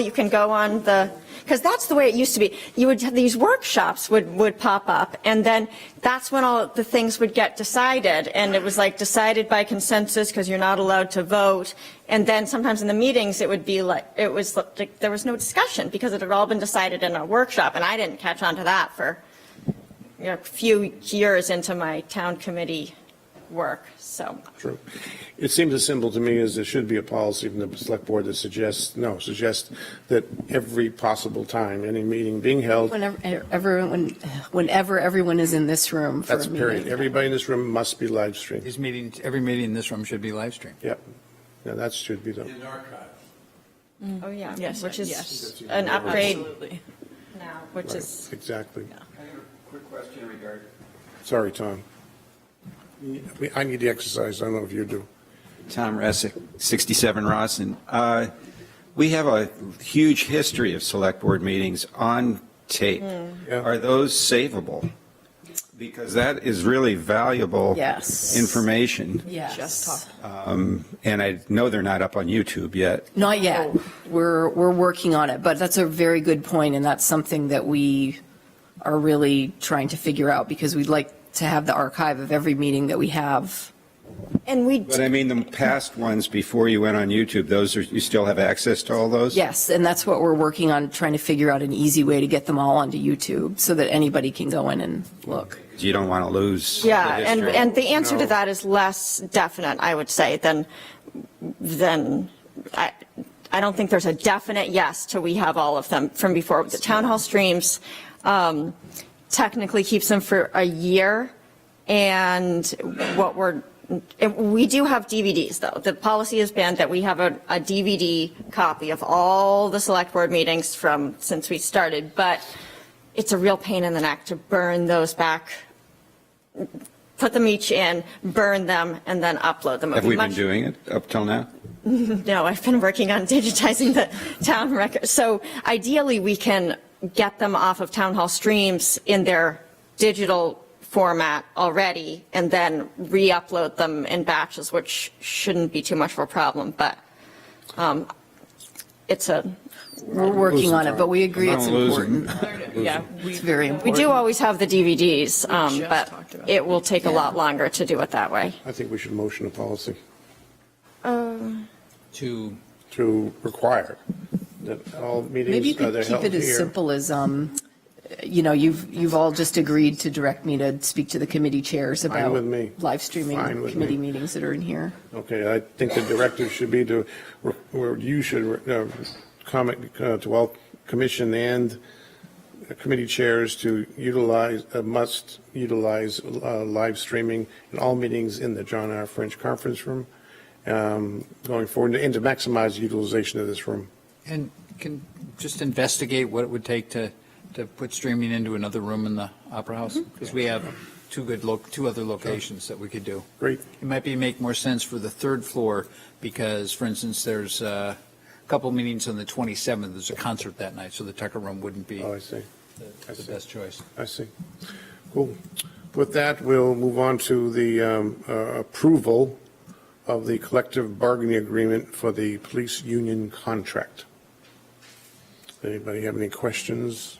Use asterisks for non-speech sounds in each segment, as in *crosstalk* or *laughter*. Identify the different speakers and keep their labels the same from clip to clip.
Speaker 1: You can go on the, because that's the way it used to be. You would, have these workshops would, would pop up, and then that's when all the things would get decided, and it was like decided by consensus because you're not allowed to vote. And then sometimes in the meetings, it would be like, it was, like there was no discussion because it had all been decided in a workshop, and I didn't catch on to that for, you know, a few years into my town committee work, so.
Speaker 2: Mm-hmm.
Speaker 3: True. It seems as simple to me as there should be a policy from the select board that suggests, no, suggests that every possible time, any meeting being held,
Speaker 4: Whenever, everyone, whenever everyone is in this room for a
Speaker 3: that's
Speaker 4: meeting.
Speaker 3: period. Everybody in this room must be live streamed.
Speaker 5: These meetings, every meeting in this room should be live streamed.
Speaker 3: Yep. Now, that should be the,
Speaker 1: Oh, yeah.
Speaker 2: Yes,
Speaker 1: Which
Speaker 2: yes.
Speaker 1: is an upgrade
Speaker 2: Absolutely.
Speaker 1: now, which is.
Speaker 3: right, exactly.
Speaker 6: I have a quick question in regard,
Speaker 3: Sorry, Tom. I- I need the exercise. I don't know if you do.
Speaker 7: Tom Resick, 67 Rossin. Uh, We have a huge history of select board meetings on tape.
Speaker 6: Mm.
Speaker 3: Yeah.
Speaker 7: Are those savable? Because that is really valuable
Speaker 4: Yes.
Speaker 7: information.
Speaker 2: Just
Speaker 4: Yes.
Speaker 2: talk.
Speaker 7: Um, And I know they're not up on YouTube yet.
Speaker 4: Not yet. We're, we're working on it, but that's a very good point, and that's something that we are really trying to figure out because we'd like to have the archive of every meeting that we have.
Speaker 1: And we,
Speaker 7: But I mean, the past ones before you went on YouTube, those are, you still have access to all those?
Speaker 4: Yes, and that's what we're working on, trying to figure out an easy way to get them all onto YouTube so that anybody can go in and look.
Speaker 7: You don't want to lose. the
Speaker 1: yeah, and,
Speaker 7: history.
Speaker 1: and the answer to
Speaker 3: No.
Speaker 1: that is less definite, I would say, than, than, I, I don't think there's a definite yes to we have all of them from before. The town hall streams um, technically keeps them for a year, and what we're, and we do have DVDs, though. The policy has been that we have a a DVD copy of all the select board meetings from, since we started, but it's a real pain in the neck to burn those back put them each in, burn them, and then upload them. It would
Speaker 7: Have
Speaker 1: be
Speaker 7: we been
Speaker 1: much-
Speaker 7: doing it up till now?
Speaker 1: No, I've been working on *laughs* digitizing the town record. So ideally, we can get them off of town hall streams in their digital format already, and then re-upload them in batches, which shouldn't be too much of a problem, but um, it's a,
Speaker 4: We're working on it, but we agree it's
Speaker 7: Don't lose 'em.
Speaker 4: important.
Speaker 2: Yeah. we-
Speaker 4: It's very
Speaker 1: we
Speaker 4: important.
Speaker 1: do always have the DVDs, um,
Speaker 2: just
Speaker 1: but
Speaker 2: talked about
Speaker 1: it will take a lot longer to do it that way.
Speaker 3: I think we should motion a policy
Speaker 5: To,
Speaker 3: to require that all
Speaker 4: Maybe you
Speaker 3: meetings are
Speaker 4: could
Speaker 3: held
Speaker 4: keep it as
Speaker 3: here.
Speaker 4: simple as, um, you know, you've, you've all just agreed to direct me to speak to the committee chairs
Speaker 3: Fine
Speaker 4: about
Speaker 3: with me.
Speaker 4: live streaming
Speaker 3: Fine with
Speaker 4: committee
Speaker 3: me.
Speaker 4: meetings that are in here.
Speaker 3: Okay, I think the directive should be to, where you should uh, comment uh, to all commission and committee chairs to utilize, uh, must utilize uh, live streaming in all meetings in the John R. French Conference Room um, going forward, and to maximize utilization of this room.
Speaker 5: and can just investigate what it would take to, to put streaming into another room in the Opera House?
Speaker 3: Mm-hmm.
Speaker 5: Because we have two good, lo- two other locations that we could do.
Speaker 3: Great.
Speaker 5: It might be, make more sense for the third floor because, for instance, there's uh, a couple meetings on the 27th. There's a concert that night, so the Tucker Room wouldn't be
Speaker 3: Oh, I
Speaker 5: the
Speaker 3: see, I
Speaker 5: the
Speaker 3: see.
Speaker 5: best choice.
Speaker 3: I see. Cool. With that, we'll move on to the um, uh, approval of the collective bargaining agreement for the police union contract. Anybody have any questions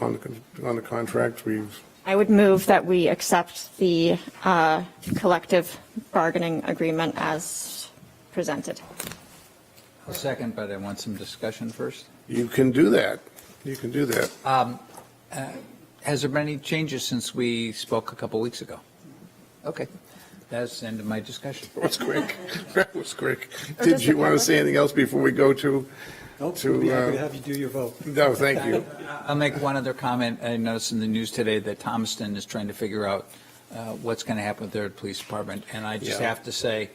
Speaker 3: on, the con- on the contract? We've,
Speaker 1: I would move that we accept the uh, collective bargaining agreement as presented.
Speaker 5: Second, but I want some discussion first.
Speaker 3: you can do that. You can do that.
Speaker 5: Um, uh, Has there been any changes since we spoke a couple weeks ago? Okay, that's the end of my discussion.
Speaker 3: That was quick. *laughs* That was quick. Did you want to say anything else before we go to?
Speaker 8: Nope,
Speaker 3: to,
Speaker 8: we'll be
Speaker 3: uh,
Speaker 8: happy to have you do your vote.
Speaker 3: No, thank you.
Speaker 5: I'll make one other comment. I noticed in the news today that Thomaston is trying to figure out uh, what's going to happen with their police department, and I just
Speaker 3: Yeah.
Speaker 5: have to say,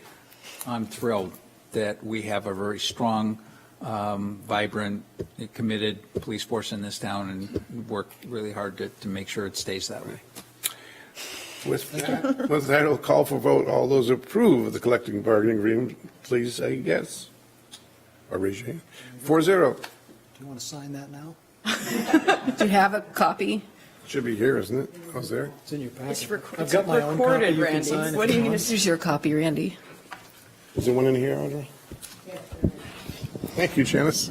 Speaker 5: I'm thrilled that we have a very strong, um, vibrant, committed police force in this town, and we work really hard to, to make sure it stays that way.
Speaker 3: With that, with that, I'll call for vote. All those who approve of the collective bargaining agreement, please say yes. Or raise your hand. Four zero.
Speaker 8: Do you want to sign that now?
Speaker 4: Do you have a copy?
Speaker 3: Should be here, isn't it? I was there.
Speaker 8: It's in your packet.
Speaker 2: It's rec-
Speaker 8: I've got my own copy.
Speaker 2: recorded,
Speaker 8: You can
Speaker 2: Randy.
Speaker 8: sign if
Speaker 2: What
Speaker 8: you
Speaker 2: are you gonna
Speaker 8: want.
Speaker 4: This is your copy, Randy.
Speaker 3: Is there one in here, Audra? Thank you, Janice.